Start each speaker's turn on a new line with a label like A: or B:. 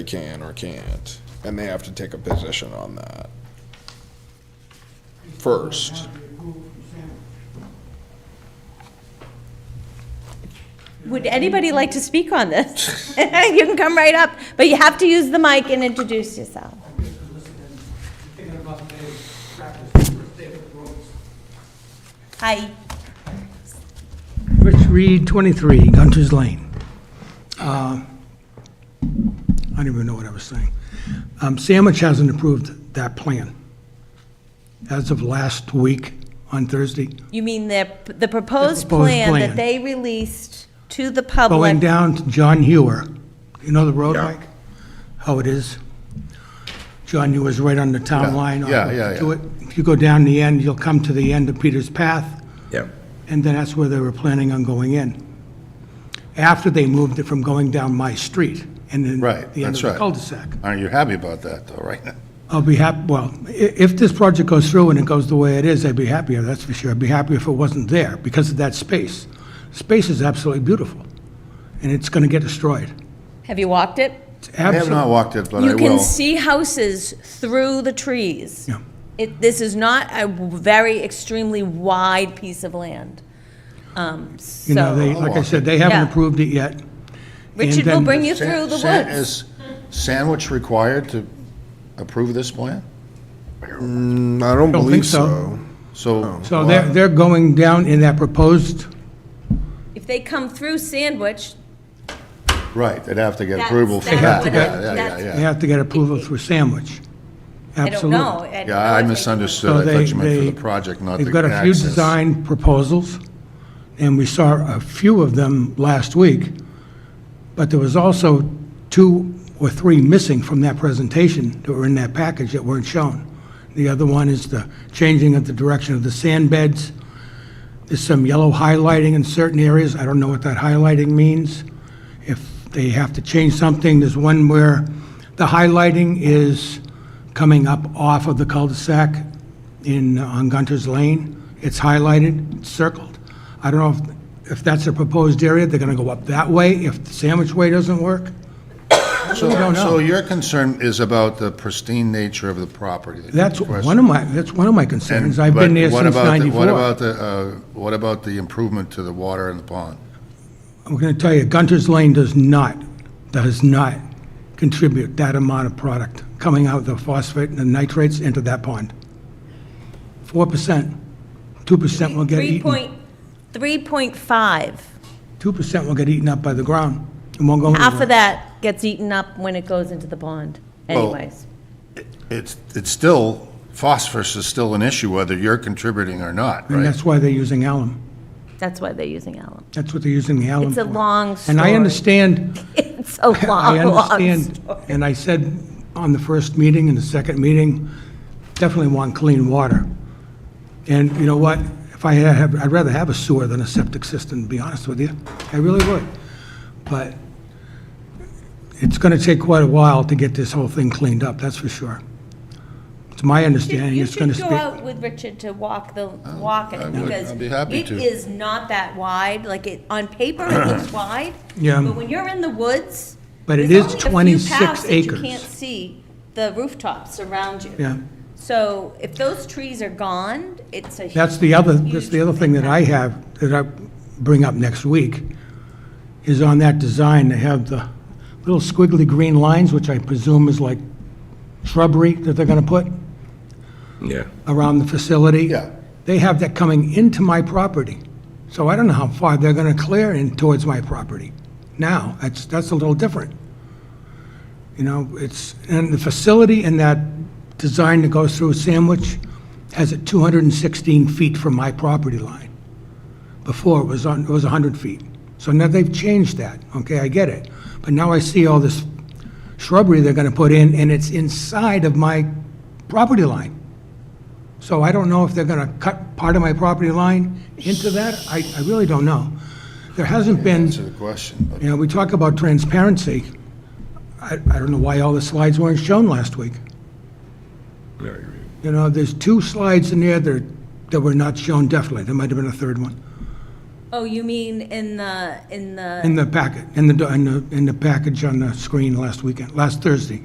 A: they can or can't, and they have to take a position on that. First.
B: Would anybody like to speak on this? You can come right up, but you have to use the mic and introduce yourself. Hi.
C: Rich Reed, 23, Gunter's Lane. Uh, I don't even know what I was saying. Um, Sandwich hasn't approved that plan. As of last week, on Thursday,
B: You mean the, the
C: proposed
B: proposed plan that
C: plan.
B: they released to the
C: going
B: public?
C: down to John Hewer. You know the road,
D: Yeah.
C: Mike? How it is? John Hewer's right on the town
D: Yeah,
C: line. on
D: yeah, yeah,
C: to
D: yeah.
C: it. If you go down the end, you'll come to the end of Peter's Path.
D: Yep.
C: and then that's where they were planning on going in. After they moved it from going down my street and then
D: Right,
C: the end
D: that's
C: of the
D: right.
C: cul-de-sac.
D: Aren't you happy about that, though, right?
C: I'll be happy, well, i- if this project goes through and it goes the way it is, I'd be happier, that's for sure. I'd be happier if it wasn't there because of that space. Space is absolutely beautiful, and it's going to get destroyed.
B: Have you walked it?
C: It's
D: I have not
C: absolute-
D: walked it, but I
B: You can
D: will.
B: see houses through the trees.
C: Yeah.
B: It, this is not a very extremely wide piece of land. Um,
C: You know, they,
B: so,
C: like I said, they haven't
B: Yeah.
C: approved it yet.
B: Richard
C: and
B: will
C: then-
B: bring you through the
D: San-
B: woods.
D: Is Sandwich required to approve this plan?
A: Mm, I don't
C: Don't
A: believe
C: think so.
A: so.
D: So.
C: So they're, they're going down in that proposed,
B: If they come through Sandwich,
D: Right, they'd have to get
B: That's-
D: approval for
B: that's
D: that.
B: what
D: Yeah,
B: I-
D: yeah,
B: that's-
D: yeah,
C: they
D: yeah.
C: have to get approval through Sandwich.
B: I don't
C: Absolutely.
B: know. don't know
D: Yeah, I
B: if they-
C: So
D: misunderstood. I
C: they-
D: thought you meant for
C: they-
D: the project, not the
C: They've got a few
D: access.
C: design proposals, and we saw a few of them last week, but there was also two or three missing from that presentation that were in that package that weren't shown. The other one is the changing of the direction of the sand beds. There's some yellow highlighting in certain areas. I don't know what that highlighting means. If they have to change something, there's one where the highlighting is coming up off of the cul-de-sac in, uh, on Gunter's Lane. It's highlighted, it's circled. I don't know if, if that's a proposed area, they're gonna go up that way if the sandwich way doesn't work.
D: So,
C: don't know.
D: so your concern is about the pristine nature of the property. that you
C: That's
D: requested.
C: one of my, that's one of my concerns. I've
D: But
C: been there
D: what
C: since
D: about the- What
C: ninety-four.
D: about the, uh, what about the improvement to the water and the pond?
C: I'm gonna tell you, Gunter's Lane does not, does not contribute that amount of product coming out of the phosphate and the nitrates into that pond. Four percent, two percent will get
B: Three
C: eaten,
B: point, three point five.
C: two percent will get eaten up by the ground. It won't go anywhere.
B: Half of that gets eaten up when it goes into the pond
D: Well-
B: anyways.
D: It's, it's still, phosphorus is still an issue whether you're contributing or not,
C: And
D: right?
C: that's why they're using alum.
B: That's why they're using alum.
C: That's what they're using the alum
B: It's a
C: for.
B: long
C: And I
B: story.
C: understand,
B: It's a long,
C: I
B: long
C: understand,
B: story.
C: and I said on the first meeting and the second meeting, definitely want clean water. And you know what? If I had, have- I'd rather have a sewer than a septic system, to be honest with you. I really would. But it's going to take quite a while to get this whole thing cleaned up, that's for sure. It's my understanding,
B: You
C: it's going
B: should
C: to
B: go
C: speak.
B: out with Richard to walk the, walk
D: I
B: it,
D: would.
B: because
D: Oh, I'd be happy
B: it
D: to.
B: is not that wide, like it, on paper it looks wide.
C: Yeah.
B: But when you're in the woods.
C: But it
B: there's
C: is
B: only a few
C: 26
B: paths that
C: acres.
B: You can't see the rooftops around you.
C: Yeah.
B: So if those trees are gone, it's a.
C: That's the other,
B: huge
C: that's the other thing that I
B: impact.
C: have, that I bring up next week, is on that design, they have the little squiggly green lines, which I presume is like shrubbery that they're gonna put
E: Yeah.
C: around the facility.
D: Yeah.
C: They have that coming into my property. So I don't know how far they're gonna clear in towards my property. Now, that's, that's a little different. You know, it's, and the facility and that design that goes through Sandwich has it 216 feet from my property line. Before, it was on, it was 100 feet. So now they've changed that, okay, I get it. But now I see all this shrubbery they're gonna put in, and it's inside of my property line. So I don't know if they're gonna cut part of my property line into that, I, I really don't know. There hasn't been.
D: Answer the question, but
C: You know, we talk about transparency. I, I don't know why all the slides weren't shown last week.
E: Very good.
C: You know, there's two slides in there that, that were not shown definitely. There might have been a third one.
B: Oh, you mean in the, in the?
C: in the packet, in the, in the, in the package on the screen last weekend, last Thursday.